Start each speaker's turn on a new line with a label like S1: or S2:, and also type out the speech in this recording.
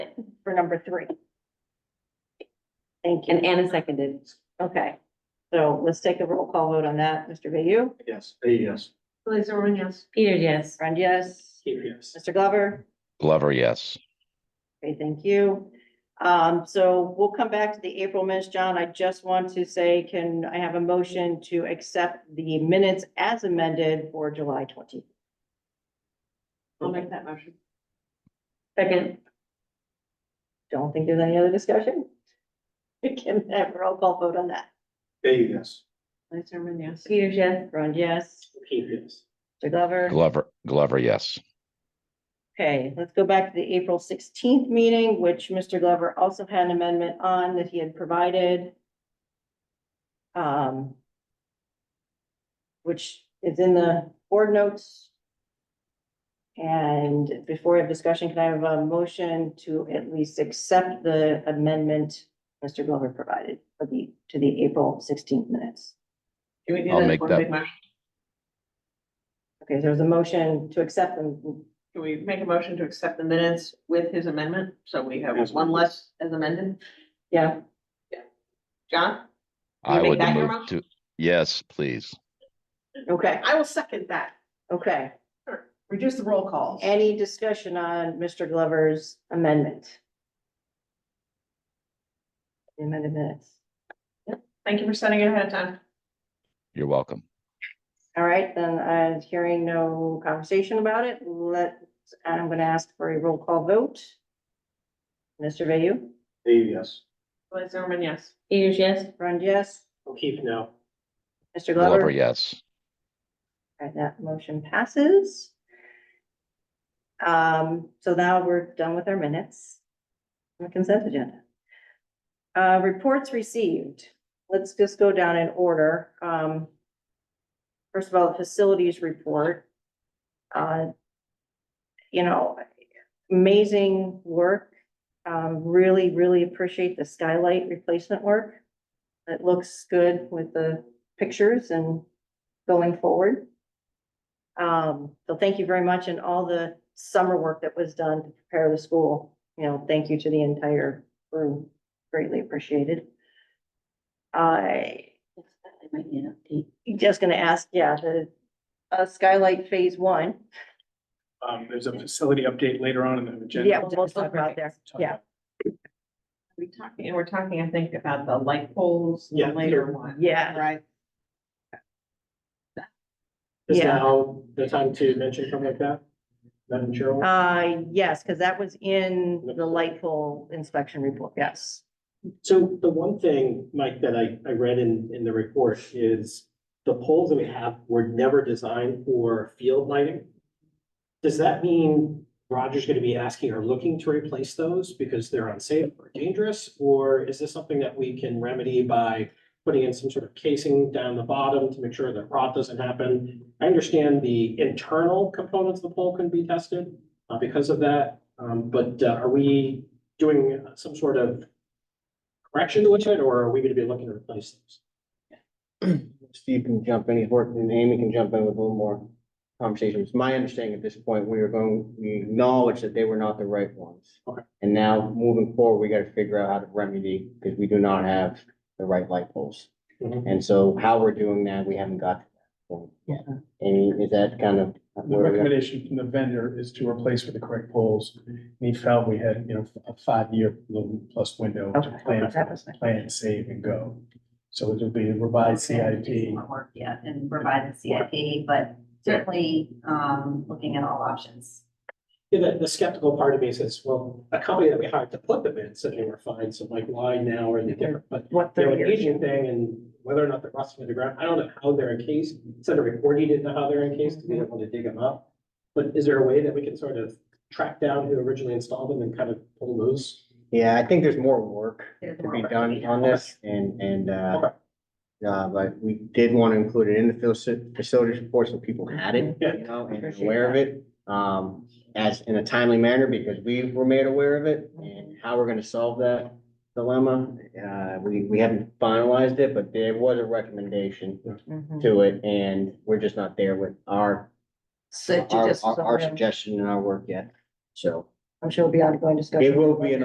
S1: for number three. Thank you.
S2: And Anna seconded.
S1: Okay. So let's take a roll call vote on that. Mr. Bayou?
S3: Yes. Yes.
S4: Liz Owen, yes.
S2: Peter, yes.
S1: Friend, yes.
S3: Yes.
S1: Mr. Glover?
S5: Glover, yes.
S1: Okay, thank you. Um, so we'll come back to the April minutes. John, I just want to say, can I have a motion to accept the minutes as amended for July twenty?
S4: I'll make that motion.
S2: Second.
S1: Don't think there's any other discussion? We can have a roll call vote on that.
S3: Yes.
S4: Liz Owen, yes.
S2: Peter, yes.
S1: Friend, yes.
S3: Yes.
S1: Mr. Glover?
S5: Glover, Glover, yes.
S1: Okay, let's go back to the April sixteenth meeting, which Mr. Glover also had an amendment on that he had provided. Um. Which is in the board notes. And before we have discussion, can I have a motion to at least accept the amendment Mr. Glover provided for the, to the April sixteenth minutes?
S4: Can we do
S5: I'll
S4: that as
S5: make
S4: one
S5: that-
S4: big motion?
S1: Okay, so there's a motion to accept them.
S4: Can we make a motion to accept the minutes with his amendment? So we have
S3: Yes.
S4: one less as amended.
S1: Yeah,
S4: John? Can you
S5: I
S4: make
S5: would
S4: that your
S5: move
S4: motion?
S5: to, yes, please.
S1: okay,
S4: I will second that.
S1: okay.
S4: Reduce the roll calls.
S1: Any discussion on Mr. Glover's amendment? The Amended minutes.
S4: Thank you for sending it ahead of time.
S5: You're welcome.
S1: All right, then I'm hearing no conversation about it. Let, I'm gonna ask for a roll call vote. Mr. Bayou?
S3: Yes.
S4: Liz Owen, yes.
S2: Peter, yes.
S1: Friend, yes.
S3: O'Keefe, no.
S1: Mr.
S5: Glover,
S1: Glover?
S5: yes.
S1: All right, that motion passes. Um, so now we're done with our minutes. The consent agenda. Uh, reports received. Let's just go down in order. Um. First of all, the facilities report. Uh. You know, amazing work. Um, really, really appreciate the skylight replacement work. It looks good with the pictures and going forward. Um, so thank you very much and all the summer work that was done to prepare the school. You know, thank you to the entire crew. Greatly appreciated. I
S2: I might need an update.
S1: just gonna ask, yeah, the uh skylight phase one.
S3: Um, there's a facility update later on in the agenda.
S1: Yeah, we'll talk about there. Yeah,
S4: We talking, and we're talking, I think, about the light poles, the
S3: Yeah,
S4: later
S3: Peter.
S4: one.
S1: yeah.
S4: Right.
S3: Is
S1: Yeah.
S3: now the time to mention something like that? Madam Chair?
S1: Uh, yes, because that was in the light pole inspection report. Yes.
S6: So the one thing, Mike, that I, I read in, in the report is the poles that we have were never designed for field lighting. Does that mean Roger's gonna be asking or looking to replace those because they're unsafe or dangerous? Or is this something that we can remedy by putting in some sort of casing down the bottom to make sure that rot doesn't happen? I understand the internal components of the pole can be tested, uh, because of that. Um, but uh, are we doing some sort of correction to it, or are we gonna be looking to replace those?
S7: Steve can jump in, he's worked, and Amy can jump in with a little more conversation. It's my understanding at this point, we are going, we acknowledge that they were not the right ones.
S6: Okay.
S7: And now moving forward, we gotta figure out how to remedy, because we do not have the right light poles.
S6: Mhm.
S7: And so how we're doing that, we haven't got to that point. yet. Amy, is that kind of?
S3: The
S7: where we are?
S3: recommendation from the vendor is to replace with the correct poles. And He felt we had, you know, a five-year little plus window
S1: Okay,
S3: to plan,
S1: that was my-
S3: for- plan, save and go. So it'll be a revised CIP.
S8: Work, yeah, and provide the CIP, but certainly, um, looking at all options.
S6: Yeah, The, the skeptical part of me says, well, a company that we hired to put them in said they were fine, so like, why now are they different? But
S1: What
S6: they're
S1: thirty
S6: an
S1: years?
S6: aging thing and whether or not they're rusting to the ground, I don't know how they're encased. Instead of reporting, didn't know how they're encased, to
S1: Mm-hmm.
S6: be able to dig them up. But is there a way that we can sort of track down who originally installed them and kind of pull those?
S7: Yeah, I think there's more work
S8: There's
S7: to be
S8: more work to be
S7: done
S8: done.
S7: on this and, and, uh,
S6: Okay.
S7: uh, but we did want to include it in the faci- facilities report so people had it,
S6: Yeah.
S7: you know, and
S1: Appreciate
S7: aware of it. Um, as in a timely manner because we were made aware of it and how we're gonna solve that dilemma. Uh, we, we haven't finalized it, but there was a recommendation
S1: Mhm.
S7: to it and we're just not there with our,
S1: So
S7: our,
S1: just-
S7: our our suggestion and our work yet. So
S1: I'm sure it'll be ongoing discussion.
S7: it will be an